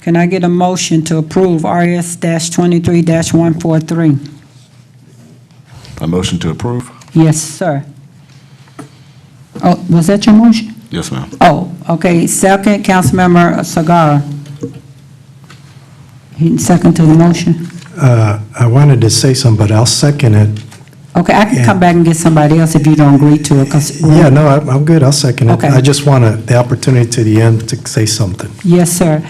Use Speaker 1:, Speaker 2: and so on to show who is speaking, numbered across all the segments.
Speaker 1: Can I get a motion to approve RS twenty-three one four three?
Speaker 2: A motion to approve?
Speaker 1: Yes, sir. Oh, was that your motion?
Speaker 2: Yes, ma'am.
Speaker 1: Oh, okay, second, Councilmember Sagara. He second to the motion.
Speaker 3: Uh, I wanted to say something, but I'll second it.
Speaker 1: Okay, I can come back and get somebody else if you don't agree to it, because.
Speaker 3: Yeah, no, I'm I'm good, I'll second it.
Speaker 1: Okay.
Speaker 3: I just want to the opportunity to the end to say something.
Speaker 1: Yes, sir.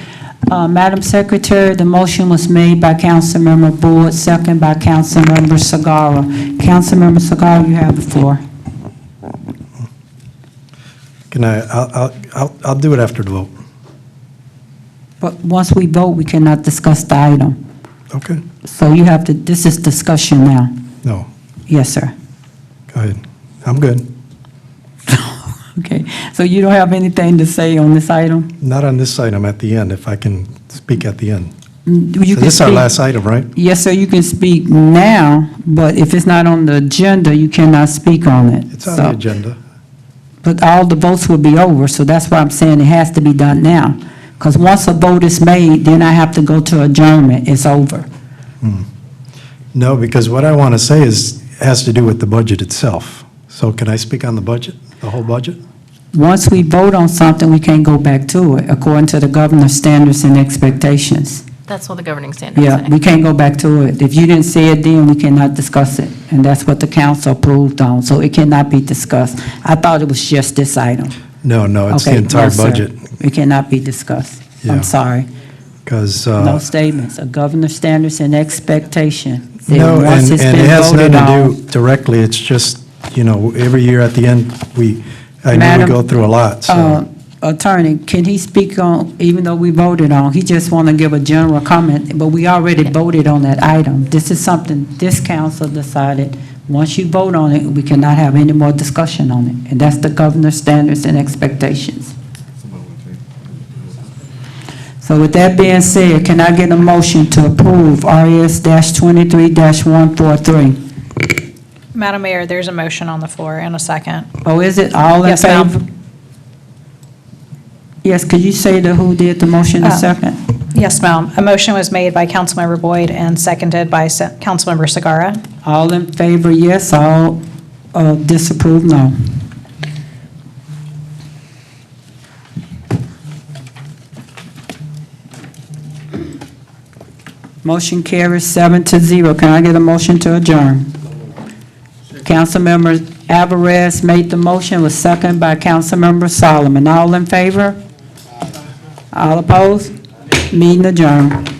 Speaker 1: Uh, Madam Secretary, the motion was made by Councilmember Boyd, second by Councilmember Sagara. Councilmember Sagara, you have the floor.
Speaker 3: Can I, I'll- I'll- I'll I'll do it after the vote.
Speaker 1: But once we vote, we cannot discuss the item.
Speaker 3: Okay.
Speaker 1: So you have to, this is discussion now.
Speaker 3: No,
Speaker 1: Yes, sir.
Speaker 3: go ahead. I'm good.
Speaker 1: Okay, so you don't have anything to say on this item?
Speaker 3: Not on this item, at the end, if I can speak at the end.
Speaker 1: Mm, you
Speaker 3: So
Speaker 1: can
Speaker 3: This is our
Speaker 1: speak-
Speaker 3: last item, right?
Speaker 1: Yes, sir, you can speak now, but if it's not on the agenda, you cannot speak on it.
Speaker 3: It's on
Speaker 1: So-
Speaker 3: the agenda.
Speaker 1: But all the votes will be over, so that's why I'm saying it has to be done now. Because once a vote is made, then I have to go to adjournment, it's over.
Speaker 3: No, because what I want to say is, has to do with the budget itself. So can I speak on the budget, the whole budget?
Speaker 1: Once we vote on something, we can't go back to it, according to the governor's standards and expectations.
Speaker 4: That's what the governing standards
Speaker 1: Yeah,
Speaker 4: say.
Speaker 1: we can't go back to it. If you didn't say it then, we cannot discuss it. And that's what the council approved on, so it cannot be discussed. I thought it was just this item.
Speaker 3: No, no, it's the
Speaker 1: Okay,
Speaker 3: entire
Speaker 1: no, sir.
Speaker 3: budget.
Speaker 1: It cannot be discussed.
Speaker 3: Yeah. Uh,
Speaker 1: I'm sorry.
Speaker 3: Because.
Speaker 1: No statements, a governor's standards and expectation. Then
Speaker 3: No,
Speaker 1: once
Speaker 3: and,
Speaker 1: it's
Speaker 3: and
Speaker 1: been
Speaker 3: it has
Speaker 1: voted
Speaker 3: nothing
Speaker 1: on-
Speaker 3: to do directly, it's just, you know, every year at the end, we, I know
Speaker 1: Madam,
Speaker 3: we go through a lot,
Speaker 1: Uh,
Speaker 3: so.
Speaker 1: Attorney, can he speak on, even though we voted on, he just want to give a general comment, but we already voted on that item. This is something this council decided, once you vote on it, we cannot have any more discussion on it. And that's the governor's standards and expectations. So with that being said, can I get a motion to approve RES twenty-three one four three?
Speaker 5: Madam Mayor, there's a motion on the floor and a second.
Speaker 1: Oh, is it all in
Speaker 5: Yes, ma'am.
Speaker 1: favor? Yes, could you say the who did the motion in
Speaker 5: Uh,
Speaker 1: second?
Speaker 5: Yes, ma'am. A motion was made by Councilmember Boyd and seconded by Se- Councilmember Sagara.
Speaker 1: All in favor, yes, all uh, disapprove, no. Motion carries seven to zero. Can I get a motion to adjourn? Councilmember Alvarez made the motion, was seconded by Councilmember Solomon. All in favor? All opposed? Meeting adjourned.